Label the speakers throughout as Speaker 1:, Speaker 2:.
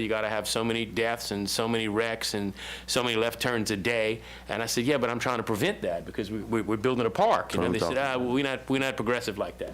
Speaker 1: you got to have so many deaths and so many wrecks and so many left turns a day. And I said, yeah, but I'm trying to prevent that because we, we- we're building a park. You know, they said, ah, well, we're not, we're not progressive like that.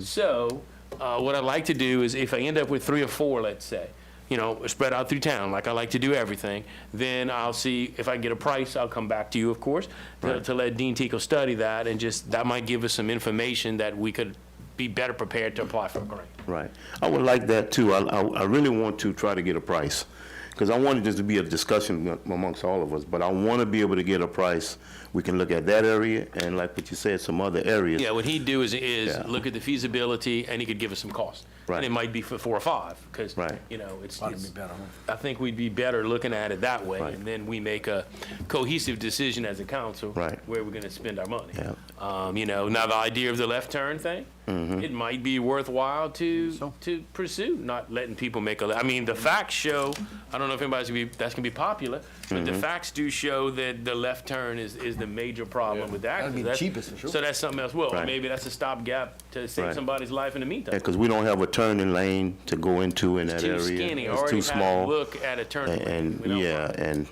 Speaker 1: So uh, what I'd like to do is if I end up with three or four, let's say, you know, spread out through town, like I like to do everything, then I'll see if I can get a price, I'll come back to you, of course, to to let Dean Tico study that and just, that might give us some information that we could be better prepared to apply for a grant.
Speaker 2: Right. I would like that too. I, I, I really want to try to get a price. Because I wanted this to be a discussion amongst all of us, but I want to be able to get a price. We can look at that area and like what you said, some other areas.
Speaker 1: Yeah, what he'd do is, is
Speaker 2: Yeah.
Speaker 1: look at the feasibility, and he could give us some cost. And it
Speaker 2: Right.
Speaker 1: might be for four or five, because,
Speaker 2: Right.
Speaker 1: you know, it's,
Speaker 3: Probably
Speaker 1: it's-
Speaker 3: be better,
Speaker 1: I think we'd be better looking at it that way,
Speaker 2: Right.
Speaker 1: and then we make a cohesive decision as a council.
Speaker 2: Right.
Speaker 1: Where we're gonna spend our money.
Speaker 2: Yeah.
Speaker 1: Um, you know, now the idea of the left turn thing,
Speaker 2: Mm-hmm.
Speaker 1: it might be worthwhile to, to pursue, not letting people make a, le- I mean, the facts show, I don't know if anybody's gonna be, that's gonna be popular, but
Speaker 2: Mm-hmm.
Speaker 1: the facts do show that the left turn is, is the major problem with that.
Speaker 3: That'd be the cheapest, for sure.
Speaker 1: So that's something else, well,
Speaker 2: Right.
Speaker 1: maybe that's a stopgap to save
Speaker 2: Right.
Speaker 1: somebody's life in the meantime.
Speaker 2: Because we don't have a turning lane to go into in that area.
Speaker 1: Too skinny,
Speaker 2: It's
Speaker 1: already
Speaker 2: too
Speaker 1: had to
Speaker 2: small.
Speaker 1: look at a turn.
Speaker 2: And,
Speaker 1: lane. We
Speaker 2: and
Speaker 1: don't-
Speaker 2: yeah, and,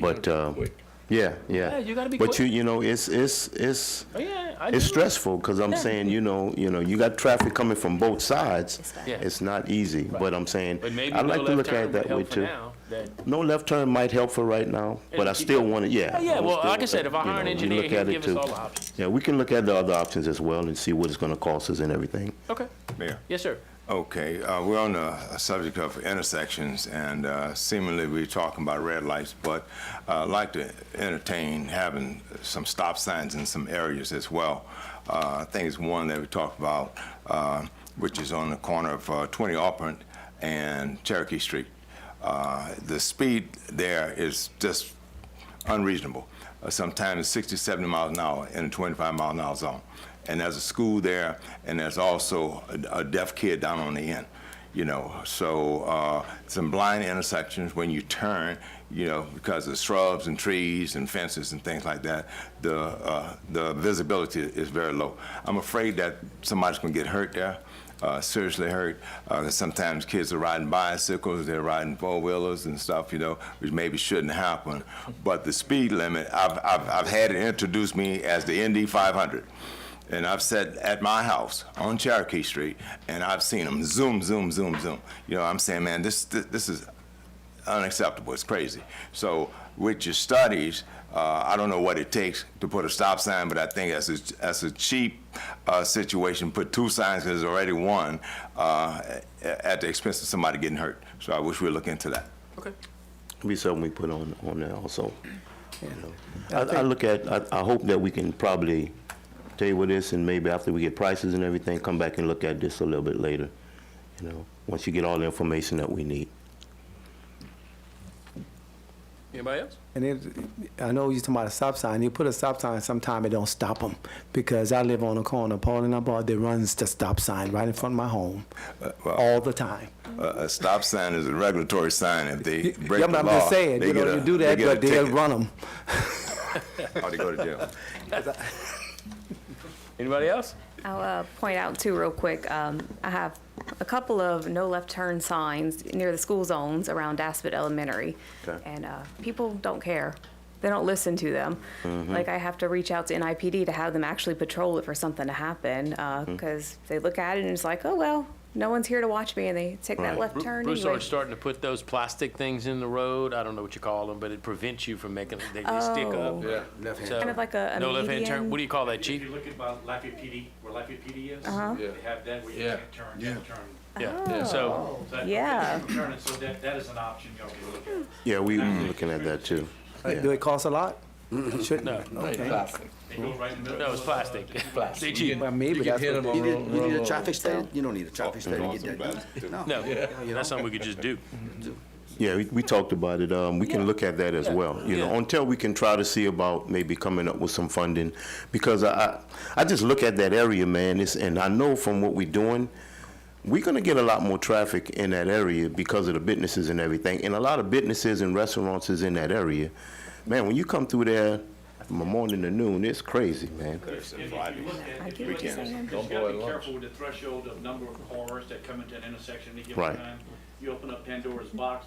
Speaker 2: but, um, yeah, yeah.
Speaker 1: Yeah, you gotta be
Speaker 2: But you,
Speaker 1: quick.
Speaker 2: you know, it's, it's, it's,
Speaker 1: Oh, yeah, I
Speaker 2: It's
Speaker 1: do.
Speaker 2: stressful because I'm
Speaker 1: Yeah.
Speaker 2: saying, you know, you know, you got traffic coming from both sides.
Speaker 4: bad.
Speaker 1: Yeah.
Speaker 2: It's not easy, but I'm saying,
Speaker 1: But maybe
Speaker 2: I
Speaker 1: no
Speaker 2: like to
Speaker 1: left
Speaker 2: look at
Speaker 1: turn
Speaker 2: it
Speaker 1: would
Speaker 2: that way
Speaker 1: help for
Speaker 2: too.
Speaker 1: now, that-
Speaker 2: No left turn might help for right now, but I
Speaker 1: keep
Speaker 2: still want to, Oh, yeah.
Speaker 1: Yeah,
Speaker 2: I
Speaker 1: well,
Speaker 2: still-
Speaker 1: like I said, if I
Speaker 2: you
Speaker 1: hire an
Speaker 2: know, you
Speaker 1: engineer,
Speaker 2: look
Speaker 1: he'll
Speaker 2: at it
Speaker 1: give us
Speaker 2: too.
Speaker 1: all the options.
Speaker 2: Yeah, we can look at the other options as well and see what it's going to cost us and everything.
Speaker 1: Okay,
Speaker 5: Mayor.
Speaker 1: yes, sir.
Speaker 5: Okay, uh, we're on the subject of intersections, and uh, seemingly we're talking about red lights, but uh, I'd like to entertain having some stop signs in some areas as well. Uh, I think it's one that we talked about, uh, which is on the corner of uh, 20 Auburn and Cherokee Street. Uh, The speed there is just unreasonable. Uh, Sometimes 60, 70 miles an hour in a 25 mile an hour zone. And there's a school there, and there's also a a deaf kid down on the end, you know. So uh, some blind intersections when you turn, you know, because of shrubs and trees and fences and things like that, the uh, the visibility is very low. I'm afraid that somebody's going to get hurt there uh, seriously hurt. Uh, sometimes kids are riding bicycles, they're riding four wheelers and stuff, you know, which maybe shouldn't happen. But the speed limit, I've, I've, I've had it introduced me as the ND 500. And I've sat at my house on Cherokee Street and I've seen them zoom, zoom, zoom, zoom. You know, I'm saying, man, this, this, this is unacceptable. It's crazy. So with your studies, uh, I don't know what it takes to put a stop sign, but I think that's a, that's a cheap uh, situation. Put two signs because there's already one uh, a- at the expense of somebody getting hurt. So I wish we'd look into that.
Speaker 1: Okay.
Speaker 2: It'll be something we put on, on there also. you know. I, I look at, I, I hope that we can probably table this and maybe after we get prices and everything, come back and look at this a little bit later, you know, once you get all the information that we need.
Speaker 1: Anybody else?
Speaker 6: And it, I know you're talking about a stop sign. You put a stop sign, sometime it don't stop them. Because I live on a corner, Paul and I bought, there runs the stop sign right in front of my home, uh,
Speaker 5: well-
Speaker 6: all the time.
Speaker 5: Uh, a stop sign is a regulatory sign. If they break
Speaker 6: Yeah, but
Speaker 5: the
Speaker 6: I'm
Speaker 5: law,
Speaker 6: just saying,
Speaker 5: they
Speaker 6: you
Speaker 5: get
Speaker 6: know,
Speaker 5: a-
Speaker 6: you do that,
Speaker 5: get a
Speaker 6: but they'll
Speaker 5: ticket
Speaker 6: run them.
Speaker 5: Or they go to jail.
Speaker 1: Anybody else?
Speaker 4: I'll uh, point out too, real quick, um, I have a couple of no left turn signs near the school zones around Daspit Elementary.
Speaker 2: Okay.
Speaker 4: And uh, people don't care. They don't listen to them.
Speaker 2: Mm-hmm.
Speaker 4: Like, I have to reach out to NIPD to have them actually patrol it for something to happen,
Speaker 2: Mm-hmm.
Speaker 4: because they look at it and it's like, oh, well, no one's here to watch me, and they take that
Speaker 2: Right.
Speaker 4: left turn
Speaker 1: Bruce
Speaker 4: anyway.
Speaker 1: started starting to put those plastic things in the road, I don't know what you call them, but it prevents you from making, they they stick up.
Speaker 4: Oh.
Speaker 3: left hand.
Speaker 1: So-
Speaker 4: Kind of like a- a
Speaker 1: No left-hand turn,
Speaker 4: median.
Speaker 1: what do you call that,
Speaker 7: If
Speaker 1: chief?
Speaker 7: you look at about Lafayette PD, where Lafayette PD is, they have that where you
Speaker 3: Yeah.
Speaker 7: can't turn, can't turn.
Speaker 4: Oh.
Speaker 1: Yeah, so,
Speaker 7: So that-
Speaker 4: Yeah.
Speaker 7: Turn it, so that, that is an option y'all can look at.
Speaker 2: Yeah, we Mm. looking at that too.
Speaker 6: Like, Do it cost a lot? Shouldn't.
Speaker 1: No.
Speaker 6: Okay.
Speaker 3: Plastic.
Speaker 7: They go right in the middle.
Speaker 1: no, it's
Speaker 7: of, uh,
Speaker 1: plastic. They
Speaker 3: Plastic.
Speaker 1: cheap.
Speaker 3: You
Speaker 6: Well, maybe
Speaker 3: can
Speaker 6: that's
Speaker 3: hit
Speaker 6: what
Speaker 3: them
Speaker 6: they-
Speaker 3: on
Speaker 8: You need, you need
Speaker 3: roll
Speaker 8: a
Speaker 3: over.
Speaker 8: traffic study? You don't need a traffic
Speaker 5: Oh,
Speaker 8: study to get that done.
Speaker 1: No, that's something we could just do.
Speaker 2: Yeah, we, we talked about it. Um, we can look at that as well, you know,
Speaker 1: Yeah.
Speaker 2: until we can try to see about maybe coming up with some funding. Because I, I, I just look at that area, man, it's, and I know from what we're doing, we're gonna get a lot more traffic in that area because of the businesses and everything. And a lot of businesses and restaurants is in that area. Man, when you come through there from the morning to noon, it's crazy, man.
Speaker 7: If if you look
Speaker 4: I
Speaker 7: at,
Speaker 4: get
Speaker 7: if you
Speaker 4: what
Speaker 7: look
Speaker 4: you're
Speaker 7: at,
Speaker 4: saying.
Speaker 7: because you gotta be careful with the threshold of number of cars that come into an intersection at any given
Speaker 2: Right.
Speaker 7: time. you open up Pandora's box,